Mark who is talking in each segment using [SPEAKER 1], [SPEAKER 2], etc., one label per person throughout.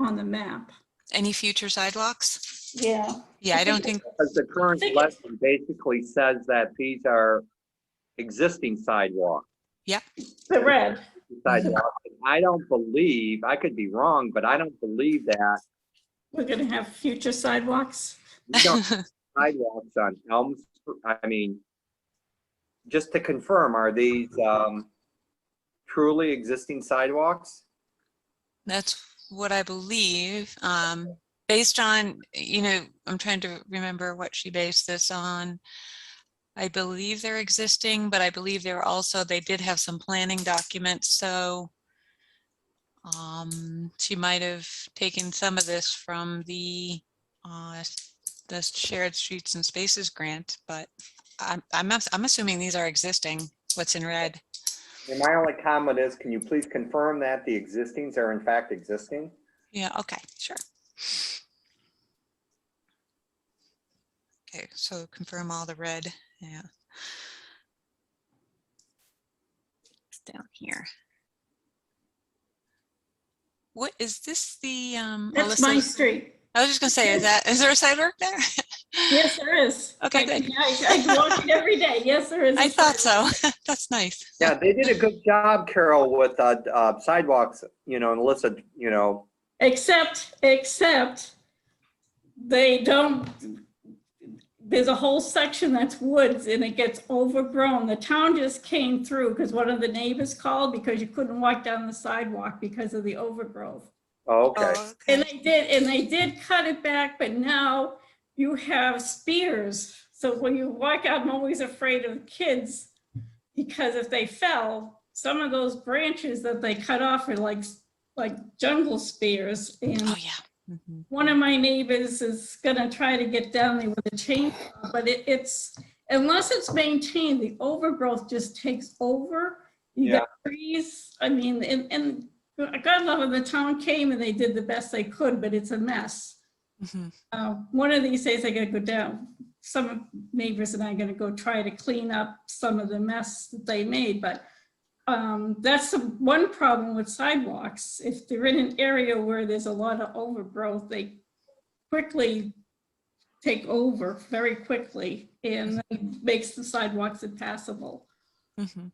[SPEAKER 1] on the map.
[SPEAKER 2] Any future sidewalks?
[SPEAKER 1] Yeah.
[SPEAKER 2] Yeah, I don't think,
[SPEAKER 3] Because the current
[SPEAKER 1] Thank you.
[SPEAKER 3] lesson basically says that these are existing sidewalks.
[SPEAKER 1] The red.
[SPEAKER 3] sidewalks. And I don't believe, I could be wrong, but I don't believe that
[SPEAKER 1] We're gonna have future sidewalks.
[SPEAKER 3] we don't have sidewalks on Elm, Street. I mean, just to confirm, are these um, truly existing sidewalks?
[SPEAKER 2] that's what I believe. Um, based on, you know, I'm trying to remember what she based this on. I believe they're existing, but I believe they were also, they did have some planning documents, so um, she might have taken some of this from the uh, the Shared Streets and Spaces grant, but I'm, I'm, ass- I'm assuming these are existing, what's in red.
[SPEAKER 3] And my only comment is, can you please confirm that the existings are in fact existing?
[SPEAKER 2] Yeah, okay, sure. Okay, so confirm all the red, yeah. It's down here. What, is this the, um,
[SPEAKER 1] That's
[SPEAKER 2] Alyssa-
[SPEAKER 1] my street.
[SPEAKER 2] I was just gonna say, is that, is there a sidewalk there?
[SPEAKER 1] Yes, there is.
[SPEAKER 2] Okay,
[SPEAKER 1] I-
[SPEAKER 2] good.
[SPEAKER 1] I I walk it every day. Yes, there is. a
[SPEAKER 2] I thought
[SPEAKER 1] sidewalk.
[SPEAKER 2] so, that's nice.
[SPEAKER 3] Yeah, they did a good job, Carol, with uh, uh, sidewalks, you know, and Alyssa, you know,
[SPEAKER 1] Except, except they don't, there's a whole section that's woods and it gets overgrown. The town just came through because one of the neighbors called because you couldn't walk down the sidewalk because of the overgrowth.
[SPEAKER 3] oh, okay.
[SPEAKER 2] Oh,
[SPEAKER 1] And they did, and they did cut it back, but now you have spears. So when you walk out, I'm always afraid of kids because if they fell, some of those branches that they cut off are like, like jungle spears.
[SPEAKER 2] Oh,
[SPEAKER 1] And
[SPEAKER 2] yeah. Mhm.
[SPEAKER 1] one of my neighbors is gonna try to get down there with a chainsaw, but it, it's, unless it's maintained, the overgrowth just takes over. You got trees, I mean, and, and God love it, the town came and they did the best they could, but it's a mess.
[SPEAKER 2] Mhm.
[SPEAKER 1] Uh, one of these days I gotta go down, some of neighbors and I gonna go try to clean up some of the mess that they made, but um, that's the one problem with sidewalks. If they're in an area where there's a lot of overgrowth, they quickly take over very quickly and it makes the sidewalks impassable.
[SPEAKER 2] Mhm.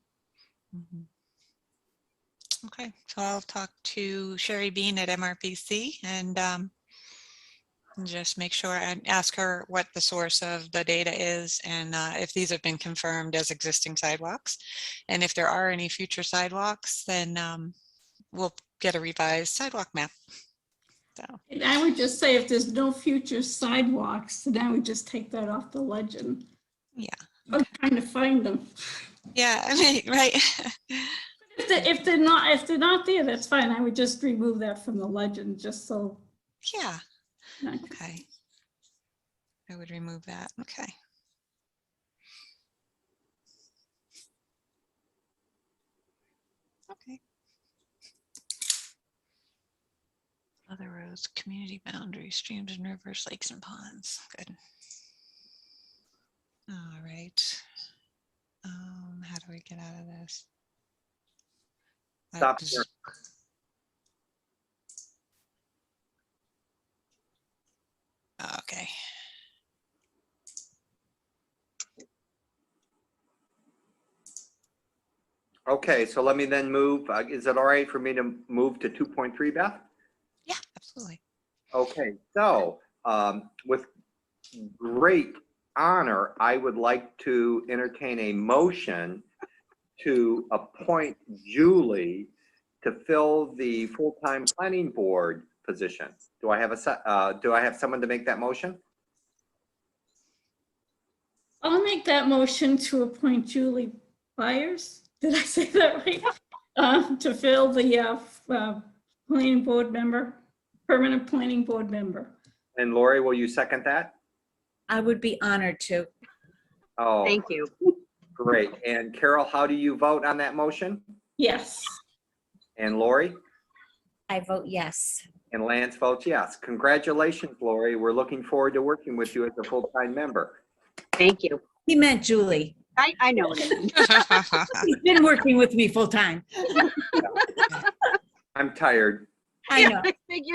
[SPEAKER 2] Mhm. Okay, so I'll talk to Sherry Bean at MRPC and um, just make sure and ask her what the source of the data is and uh, if these have been confirmed as existing sidewalks. And if there are any future sidewalks, then um, we'll get a revised sidewalk map. So,
[SPEAKER 1] And I would just say if there's no future sidewalks, then I would just take that off the legend.
[SPEAKER 2] Yeah.
[SPEAKER 1] I'm trying to find them.
[SPEAKER 2] yeah, I mean, right.
[SPEAKER 1] If they- If they're not, if they're not there, that's fine. I would just remove that from the legend, just so.
[SPEAKER 2] Yeah,
[SPEAKER 1] not-
[SPEAKER 2] okay. I would remove that. Okay. Okay. Other roads, community boundaries, streams and rivers, lakes and ponds. Good. All right. Um, how do we get out of this? Uh,
[SPEAKER 3] Stop
[SPEAKER 2] just-
[SPEAKER 3] here.
[SPEAKER 2] Okay.
[SPEAKER 3] Okay, so let me then move, uh, is it all right for me to move to 2.3, Beth?
[SPEAKER 2] Yeah, absolutely.
[SPEAKER 3] Okay, so um, with great honor, I would like to entertain a motion to appoint Julie to fill the full-time planning board position. Do I have a, se- uh, do I have someone to make that motion?
[SPEAKER 1] I'll make that motion to appoint Julie Byers. Did I say that right? Um, to fill the, uh, f- uh, planning board member, permanent planning board member.
[SPEAKER 3] And Lori, will you second that?
[SPEAKER 4] I would be honored to.
[SPEAKER 3] Oh,
[SPEAKER 4] Thank you.
[SPEAKER 3] great. And Carol, how do you vote on that motion?
[SPEAKER 1] Yes.
[SPEAKER 3] And Lori?
[SPEAKER 4] I vote yes.
[SPEAKER 3] And Lance votes yes. Congratulations, Lori. We're looking forward to working with you as a full-time member.
[SPEAKER 5] Thank you.
[SPEAKER 4] He meant Julie.
[SPEAKER 5] I, I know. what it means.
[SPEAKER 4] He's been working with me full time.
[SPEAKER 3] I'm tired.
[SPEAKER 4] I know.
[SPEAKER 5] I figured.